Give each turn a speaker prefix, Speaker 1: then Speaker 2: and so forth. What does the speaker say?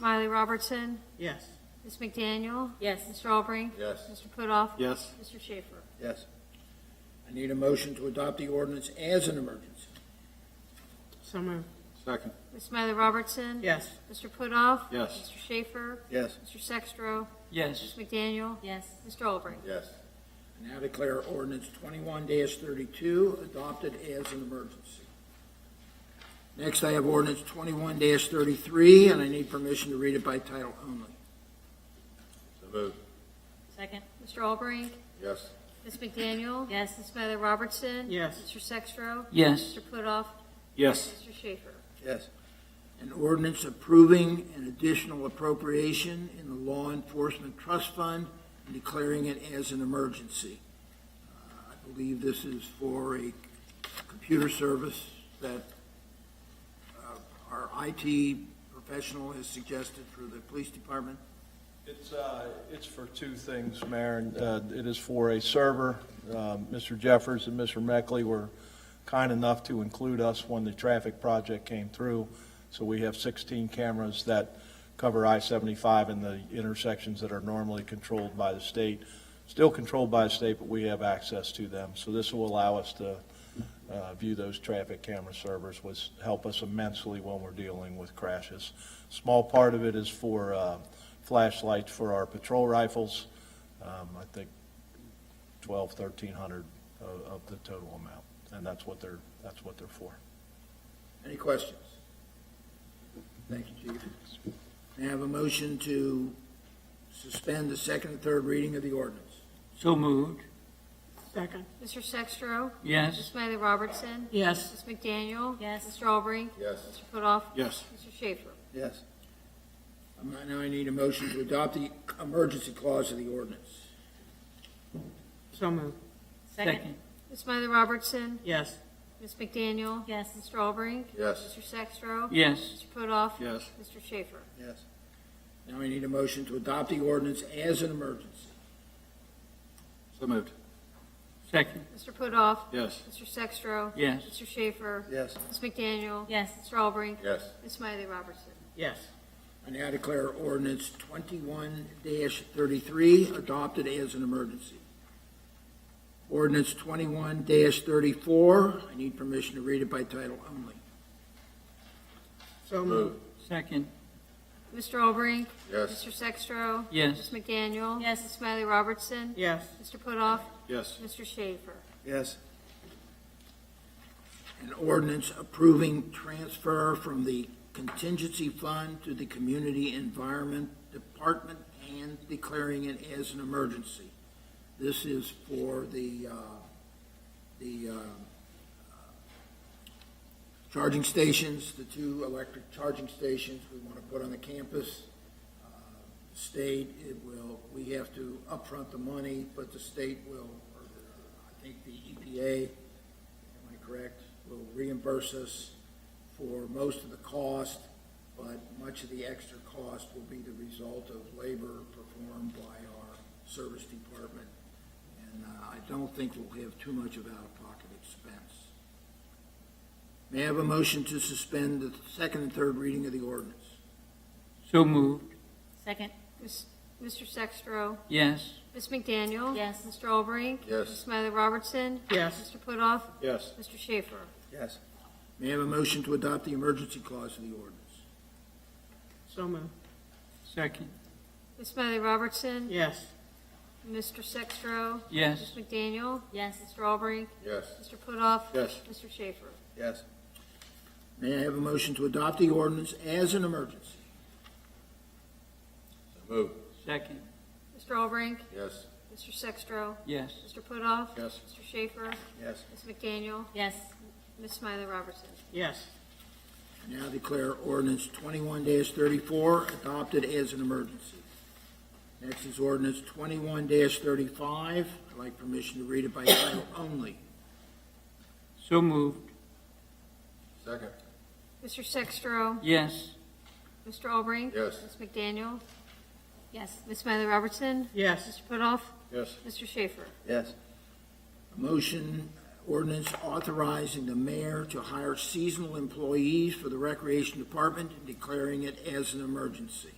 Speaker 1: Miley Robertson,
Speaker 2: Yes.
Speaker 1: Ms. McDaniel,
Speaker 3: Yes.
Speaker 1: Mr. Albrecht.
Speaker 4: Yes.
Speaker 1: Mr. Putoff.
Speaker 4: Yes.
Speaker 1: Mr. Schaefer.
Speaker 5: Yes. I need a motion to adopt the ordinance as an emergency.
Speaker 2: So moved.
Speaker 4: Second.
Speaker 1: Ms. Miley Robertson.
Speaker 2: Yes.
Speaker 1: Mr. Putoff.
Speaker 4: Yes.
Speaker 1: Mr. Schaefer.
Speaker 5: Yes.
Speaker 1: Mr. Sextro.
Speaker 6: yes,
Speaker 1: Ms. McDaniel.
Speaker 3: Yes.
Speaker 1: Mr. Albrecht.
Speaker 4: Yes.
Speaker 5: I now declare ordinance twenty-one thirty-two adopted as an emergency. Next, I have ordinance twenty-one thirty-three, and I need permission to read it by title only.
Speaker 4: So moved.
Speaker 3: Second?
Speaker 1: Mr. Albrecht.
Speaker 4: Yes.
Speaker 1: Ms. McDaniel.
Speaker 3: Yes.
Speaker 1: Ms. Miley Robertson.
Speaker 2: Yes.
Speaker 1: Mr. Sextro.
Speaker 6: yes,
Speaker 1: Mr. Putoff.
Speaker 4: Yes.
Speaker 1: Mr. Schaefer.
Speaker 5: Yes. An ordinance approving an additional appropriation in the Law Enforcement Trust Fund and declaring it as an emergency. Uh, I believe this is for a computer service that uh, our IT professional has suggested for the police department.
Speaker 7: It's, uh, it's for two things, Mayor, and, uh, it is for a server. Uh, Mr. Jeffers and Mr. Meckley were kind enough to include us when the traffic project came through. So we have 16 cameras that cover I-75 and the intersections that are normally controlled by the state. Still controlled by the state, but we have access to them. So this will allow us to uh, view those traffic camera servers, which help us immensely when we're dealing with crashes. Small part of it is for uh, flashlights for our patrol rifles. Um, I think 12, 1,300 of of the total amount, and that's what they're, that's what they're for.
Speaker 5: Any questions? Thank you, Chief. May I have a motion to suspend the second and third reading of the ordinance?
Speaker 6: so moved,
Speaker 2: Second.
Speaker 1: Mr. Sextro.
Speaker 6: yes,
Speaker 1: Ms. Miley Robertson.
Speaker 2: Yes.
Speaker 1: Ms. McDaniel.
Speaker 3: Yes.
Speaker 1: Mr. Albrecht.
Speaker 4: Yes.
Speaker 1: Mr. Putoff.
Speaker 4: Yes.
Speaker 1: Mr. Schaefer.
Speaker 5: Yes. Um, Now I need a motion to adopt the emergency clause of the ordinance.
Speaker 2: So moved.
Speaker 6: second,
Speaker 1: Ms. Miley Robertson.
Speaker 2: Yes.
Speaker 1: Ms. McDaniel.
Speaker 3: Yes.
Speaker 1: Mr. Albrecht.
Speaker 4: Yes.
Speaker 1: Mr. Sextro.
Speaker 6: yes,
Speaker 1: Mr. Putoff.
Speaker 4: Yes.
Speaker 1: Mr. Schaefer.
Speaker 5: Yes. Now I need a motion to adopt the ordinance as an emergency.
Speaker 4: So moved.
Speaker 6: second,
Speaker 1: Mr. Putoff.
Speaker 4: Yes.
Speaker 1: Mr. Sextro.
Speaker 6: yes,
Speaker 1: Mr. Schaefer.
Speaker 5: Yes.
Speaker 1: Ms. McDaniel.
Speaker 3: Yes.
Speaker 1: Mr. Albrecht.
Speaker 4: Yes.
Speaker 1: Ms. Miley Robertson.
Speaker 2: Yes.
Speaker 5: I now declare ordinance twenty-one thirty-three adopted as an emergency. Ordinance twenty-one thirty-four, I need permission to read it by title only.
Speaker 2: So moved.
Speaker 6: second,
Speaker 1: Mr. Albrecht.
Speaker 4: Yes.
Speaker 1: Mr. Sextro.
Speaker 6: yes,
Speaker 1: Ms. McDaniel.
Speaker 3: Yes.
Speaker 1: Ms. Miley Robertson.
Speaker 2: Yes.
Speaker 1: Mr. Putoff.
Speaker 4: Yes.
Speaker 1: Mr. Schaefer.
Speaker 5: Yes. An ordinance approving transfer from the contingency fund to the Community Environment Department and declaring it as an emergency. This is for the, uh, the uh, charging stations, the two electric charging stations we want to put on the campus. Uh, the State, it will, we have to upfront the money, but the state will, or I think the E EPA, am I correct, will reimburse us for most of the cost, but much of the extra cost will be the result of labor performed by our service department. And uh, I don't think we'll have too much of out-of-pocket expense. May I have a motion to suspend the second and third reading of the ordinance?
Speaker 6: so moved,
Speaker 3: Second?
Speaker 1: Ms. Mr. Sextro.
Speaker 6: yes,
Speaker 1: Ms. McDaniel.
Speaker 3: Yes.
Speaker 1: Mr. Albrecht.
Speaker 4: Yes.
Speaker 1: Ms. Miley Robertson.
Speaker 2: Yes.
Speaker 1: Mr. Putoff.
Speaker 4: Yes.
Speaker 1: Mr. Schaefer.
Speaker 5: Yes. May I have a motion to adopt the emergency clause of the ordinance?
Speaker 2: So moved.
Speaker 6: second,
Speaker 1: Ms. Miley Robertson.
Speaker 2: Yes.
Speaker 1: Mr. Sextro.
Speaker 6: yes,
Speaker 1: Ms. McDaniel.
Speaker 3: Yes.
Speaker 1: Mr. Albrecht.
Speaker 4: Yes.
Speaker 1: Mr. Putoff.
Speaker 4: Yes.
Speaker 1: Mr. Schaefer.
Speaker 5: Yes. May I have a motion to adopt the ordinance as an emergency?
Speaker 4: So moved.
Speaker 6: second,
Speaker 1: Mr. Albrecht.
Speaker 4: Yes.
Speaker 1: Mr. Sextro.
Speaker 6: yes,
Speaker 1: Mr. Putoff.
Speaker 4: Yes.
Speaker 1: Mr. Schaefer.
Speaker 5: Yes.
Speaker 1: Ms. McDaniel.
Speaker 3: Yes.
Speaker 1: Ms. Smiley Robertson.
Speaker 2: Yes.
Speaker 5: Now declare ordinance twenty-one thirty-four adopted as an emergency. Next is ordinance twenty-one thirty-five. I'd like permission to read it by title only.
Speaker 6: so moved,
Speaker 4: Second.
Speaker 1: Mr. Sextro.
Speaker 6: yes,
Speaker 1: Mr. Albrecht.
Speaker 4: Yes.
Speaker 1: Ms. McDaniel.
Speaker 3: Yes.
Speaker 1: Ms. Smiley Robertson.
Speaker 2: Yes.
Speaker 1: Mr. Putoff.
Speaker 4: Yes.
Speaker 1: Mr. Schaefer.
Speaker 5: Yes. A motion Ordinance authorizing the mayor to hire seasonal employees for the recreation department and declaring it as an emergency.